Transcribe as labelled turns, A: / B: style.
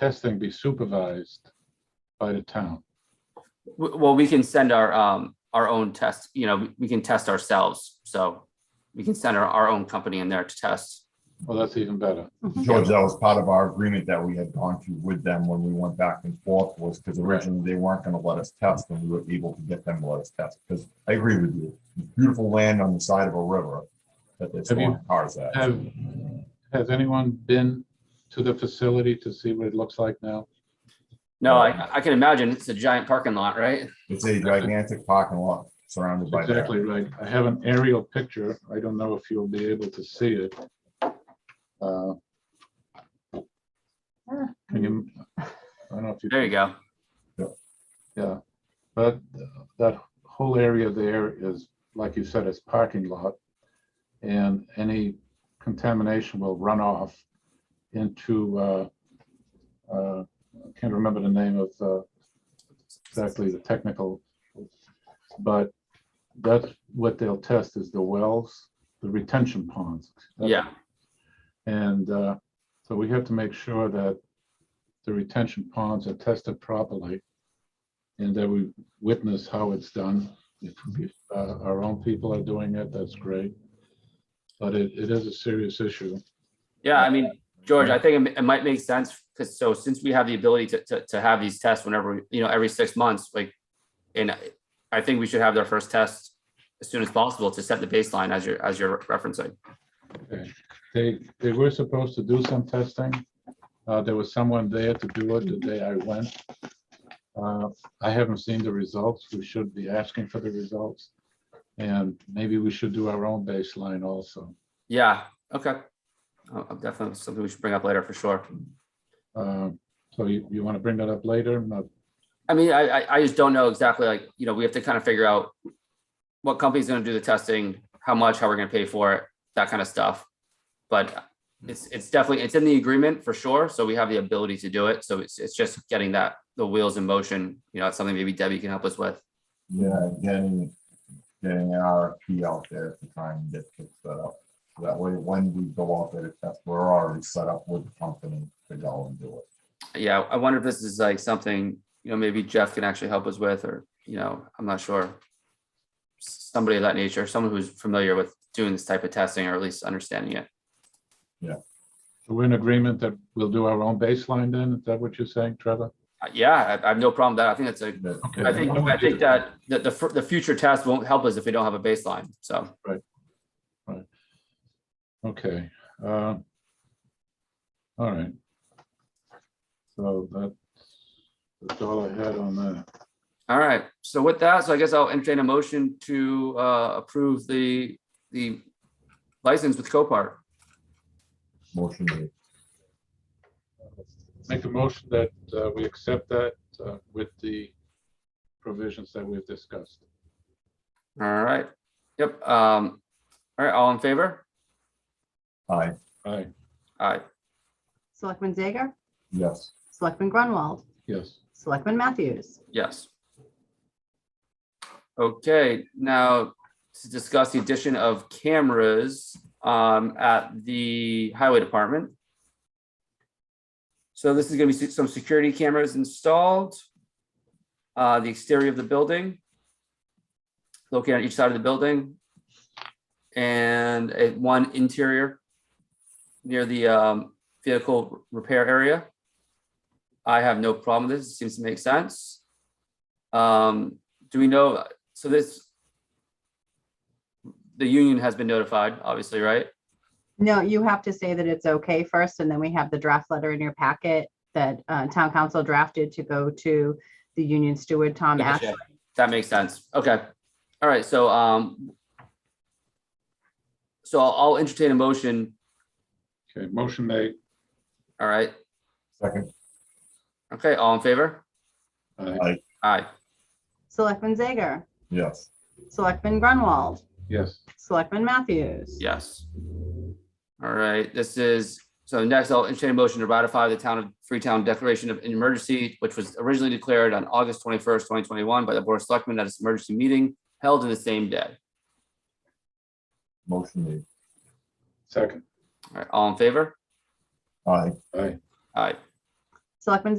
A: testing be supervised by the town?
B: W- Well, we can send our, um, our own test, you know, we- we can test ourselves, so we can send our, our own company in there to test.
A: Well, that's even better.
C: George, that was part of our agreement that we had gone to with them when we went back and forth was because originally they weren't gonna let us test and we were able to get them to let us test. Because I agree with you, beautiful land on the side of a river that they're
A: Have you-
C: storing cars at.
A: Have, has anyone been to the facility to see what it looks like now?
B: No, I, I can imagine it's a giant parking lot, right?
C: It's a gigantic parking lot surrounded by that.
A: Exactly right. I have an aerial picture. I don't know if you'll be able to see it. Uh, Can you, I don't know if you.
B: There you go.
A: Yeah, but uh, that whole area there is, like you said, it's parking lot. And any contamination will run off into, uh, uh, I can't remember the name of, uh, exactly the technical. But that's what they'll test is the wells, the retention ponds.
B: Yeah,
A: And uh, so we have to make sure that the retention ponds are tested properly and that we witness how it's done. If if, uh, our own people are doing it, that's great. But it, it is a serious issue.
B: yeah, I mean, George, I think it m- it might make sense, because so since we have the ability to, to, to have these tests whenever, we- you know, every six months, like, and I- I think we should have their first test as soon as possible to set the baseline as you're, as you're referencing.
A: They, they were supposed to do some testing. Uh, There was someone there to do it the day I went. Uh, I haven't seen the results. We should be asking for the results. And maybe we should do our own baseline also.
B: Yeah, okay. Uh, Definitely something we should bring up later for sure.
A: Um, So you, you want to bring that up later? Uh, No,
B: I mean, I, I, I just don't know exactly, like, you know, we have to kind of figure out what company's gonna do the testing, how much, how we're gonna pay for it, that kind of stuff. But it's, it's definitely, it's in the agreement for sure, so we have the ability to do it, so it's, it's just getting that, the wheels in motion, you know, it's something maybe Debbie can help us with.
C: Yeah, getting, getting an RFP out there to try and get it set up. So That way, when we go out there to test, we're already set up with the company to go and do it.
B: Yeah, I wonder if this is like something, you know, maybe Jeff can actually help us with, or, you know, I'm not sure. S- Somebody of that nature, someone who's familiar with doing this type of testing, or at least understanding it.
A: So we're in agreement that we'll do our own baseline then? Is that what you're saying, Trevor?
B: Uh, Yeah, I, I have no problem with that, I think that's a
C: That-
B: I think, I think that, that the, fir- the future test won't help us if we don't have a baseline, so.
A: Okay. uh, All right. So that's that's all I had on that.
B: All right, so with that, so I guess I'll entertain a motion to, uh, approve the, the license with Copart.
C: Motion made.
A: Make a motion that uh, we accept that uh, with the provisions that we've discussed.
B: All right, yep, um, all right, all in favor?
C: Aye,
A: Aye,
B: All right,
D: Selectman Zager?
C: yes.
D: Selectman Grunwald?
A: yes.
D: Selectman Matthews?
B: yes. Okay, now to discuss the addition of cameras, um, at the highway department. So this is gonna be se- some security cameras installed. Uh, the exterior of the building. Located on each side of the building. And a one interior. Near the um vehicle repair area. I have no problem with this, it seems to make sense. Um, do we know, so this. The union has been notified, obviously, right?
D: No, you have to say that it's okay first, and then we have the draft letter in your packet that uh, town council drafted to go to the union steward, Tom Ashley.
B: Gotcha. That makes sense. Okay. All right, so, um. So I'll I'll entertain a motion,
A: Okay, motion made.
B: all right?
C: Second,
B: Okay, all in favor?
A: Aye,
B: Aye,
D: Selectman Zager?
C: yes.
D: Selectman Grunwald?
A: Yes,
D: Selectman Matthews?
B: yes. All right, this is, so next I'll entertain a motion to ratify the town of Freetown Declaration of Emergency, which was originally declared on August twenty-first, twenty twenty-one by the Board of Selectmen at its emergency meeting held in the same day.
C: Motion made.
A: second.
C: uh,
B: All right, all in favor?
C: Aye,
A: Aye,
B: Aye.
D: Selectman